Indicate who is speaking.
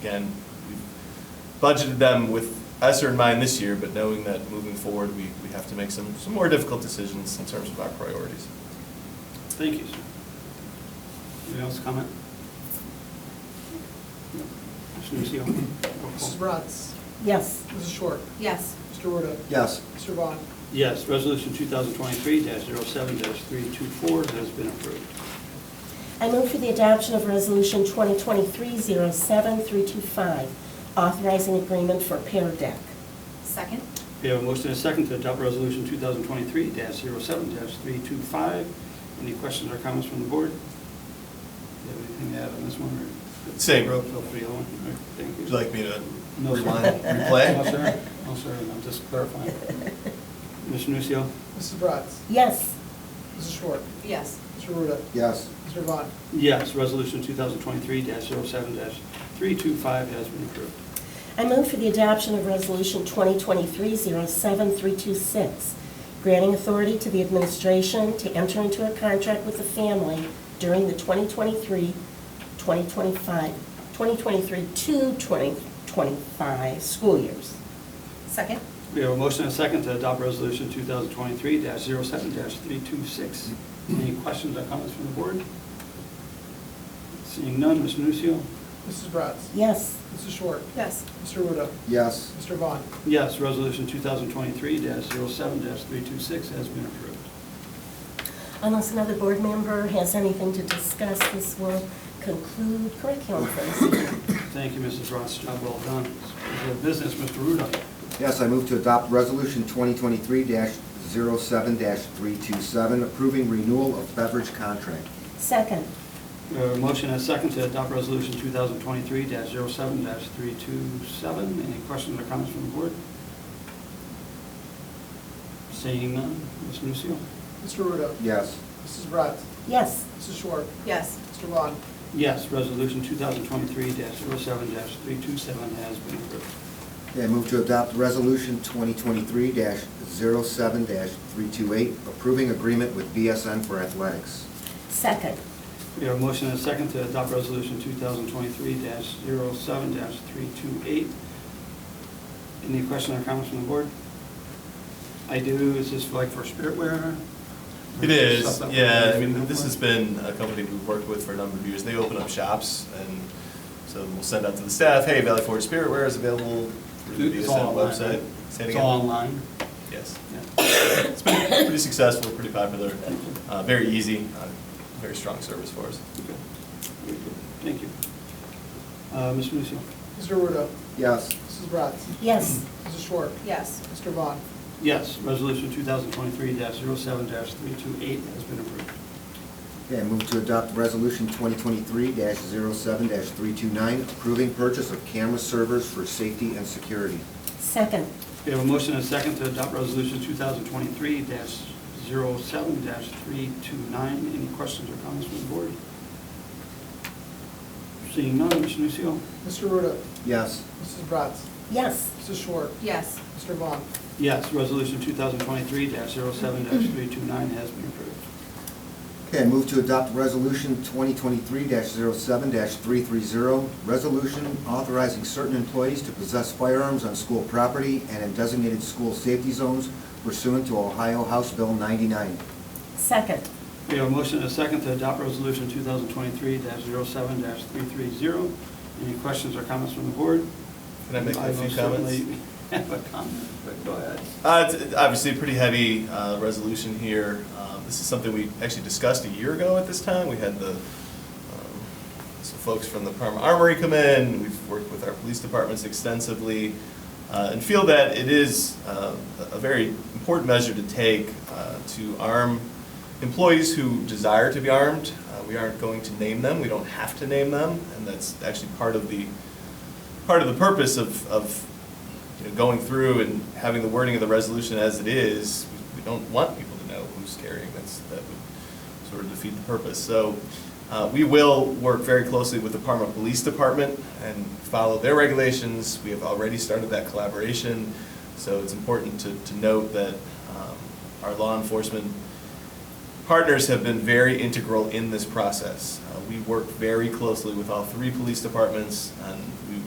Speaker 1: again, we've budgeted them with ESER in mind this year, but knowing that moving forward, we, we have to make some, some more difficult decisions in terms of our priorities.
Speaker 2: Thank you, sir. Anybody else comment? Mr. Nucio.
Speaker 3: Mrs. Bratz.
Speaker 4: Yes.
Speaker 3: Mrs. Short.
Speaker 5: Yes.
Speaker 3: Mr. Ruda.
Speaker 6: Yes.
Speaker 3: Mr. Vaughn.
Speaker 2: Yes, Resolution 2023-07-324 has been approved.
Speaker 4: I move for the adoption of Resolution 2023-07325, authorizing agreement for Pear Deck.
Speaker 5: Second?
Speaker 2: We have a motion and a second to adopt Resolution 2023-07-325. Any questions or comments from the board? Do you have anything to add on this one? or-
Speaker 1: Same.
Speaker 2: Roll call for the other one. All right, Thank you.
Speaker 1: Would you like me to
Speaker 2: No, sir.
Speaker 1: rewind,
Speaker 2: No,
Speaker 1: replay?
Speaker 2: sir. No, sir, I'm just clarifying. Mr. Nucio.
Speaker 3: Mrs. Bratz.
Speaker 4: Yes.
Speaker 3: Mrs. Short.
Speaker 5: Yes.
Speaker 3: Mr. Ruda.
Speaker 6: Yes.
Speaker 3: Mr. Vaughn.
Speaker 2: Yes, Resolution 2023-07-325 has been approved.
Speaker 4: I move for the adoption of Resolution 2023-07326, granting authority to the administration to enter into a contract with the family during the 2023, 2025, 2023 to 2025 school years.
Speaker 5: Second?
Speaker 2: We have a motion and a second to adopt Resolution 2023-07-326. Any questions or comments from the board? Seeing none, Mr. Nucio.
Speaker 3: Mrs. Bratz.
Speaker 4: Yes.
Speaker 3: Mrs. Short.
Speaker 5: Yes.
Speaker 3: Mr. Ruda.
Speaker 6: Yes.
Speaker 3: Mr. Vaughn.
Speaker 2: Yes, Resolution 2023-07-326 has been approved.
Speaker 4: Unless another board member has anything to discuss, this will conclude curriculum for this evening.
Speaker 2: Thank you, Mrs. Ross. Job well done. We have Business, Mr. Ruda.
Speaker 6: Yes, I move to adopt Resolution 2023-07-327, approving renewal of beverage contract.
Speaker 4: Second,
Speaker 2: We have a motion and a second to adopt Resolution 2023-07-327. Any questions or comments from the board? Seeing none, Mr. Nucio.
Speaker 3: Mr. Ruda.
Speaker 6: Yes.
Speaker 3: Mrs. Bratz.
Speaker 4: yes.
Speaker 3: Mrs. Short.
Speaker 5: Yes.
Speaker 3: Mr. Vaughn.
Speaker 2: Yes, Resolution 2023-07-327 has been approved.
Speaker 6: I move to adopt Resolution 2023-07-328, approving agreement with BSN for athletics.
Speaker 4: Second,
Speaker 2: We have a motion and a second to adopt Resolution 2023-07-328. Any questions or comments from the board? I do, is this like for spiritware?
Speaker 1: It is,
Speaker 2: Stuff that we're
Speaker 1: yeah, I
Speaker 2: using
Speaker 1: mean, this
Speaker 2: for?
Speaker 1: has been a company we've worked with for a number of years, they open up shops, and so we'll send out to the staff, hey, Valley Forge Spiritware is available through the
Speaker 2: It's all
Speaker 1: BSN
Speaker 2: online, right?
Speaker 1: website. Say it
Speaker 2: It's
Speaker 1: again.
Speaker 2: all online?
Speaker 1: Yes.
Speaker 2: Yeah.
Speaker 1: It's been pretty successful, pretty popular, uh, very easy, uh, very strong service for us.
Speaker 2: Okay. Very good. Thank you. Uh, Mr. Nucio.
Speaker 3: Mr. Ruda.
Speaker 6: Yes.
Speaker 3: Mrs. Bratz.
Speaker 4: yes.
Speaker 3: Mrs. Short.
Speaker 5: Yes.
Speaker 3: Mr. Vaughn.
Speaker 2: Yes, Resolution 2023-07-328 has been approved.
Speaker 6: Okay, I move to adopt Resolution 2023-07-329, approving purchase of camera servers for safety and security.
Speaker 4: Second,
Speaker 2: We have a motion and a second to adopt Resolution 2023-07-329. Any questions or comments from the board? Seeing none, Mr. Nucio.
Speaker 3: Mr. Ruda.
Speaker 6: Yes.
Speaker 3: Mrs. Bratz.
Speaker 4: yes.
Speaker 3: Mrs. Short.
Speaker 5: Yes.
Speaker 3: Mr. Vaughn.
Speaker 2: Yes, Resolution 2023-07-329 has been approved.
Speaker 6: Okay, I move to adopt Resolution 2023-07-330, resolution authorizing certain employees to possess firearms on school property and in designated school safety zones pursuant to Ohio House Bill 99.
Speaker 4: Second,
Speaker 2: We have a motion and a second to adopt Resolution 2023-07-330. Any questions or comments from the board?
Speaker 1: Can I make a few
Speaker 2: most
Speaker 1: comments?
Speaker 2: certainly have a comment, but go ahead.
Speaker 1: Uh, It's obviously a pretty heavy uh, resolution here. Um, This is something we actually discussed a year ago at this time. We had the, um, some folks from the Parma Armory come in. We've worked with our police departments extensively uh, and feel that it is uh, a a very important measure to take uh, to arm employees who desire to be armed. Uh, We aren't going to name them. We don't have to name them. And that's actually part of the part of the purpose of, of you know, going through and having the wording of the resolution as it is, we don't want people to know who's carrying this. That would sort of defeat the purpose. So uh, we will work very closely with the Parma Police Department and follow their regulations. We have already started that collaboration. So it's important to, to note that um, our law enforcement partners have been very integral in this process. Uh, We work very closely with all three police departments on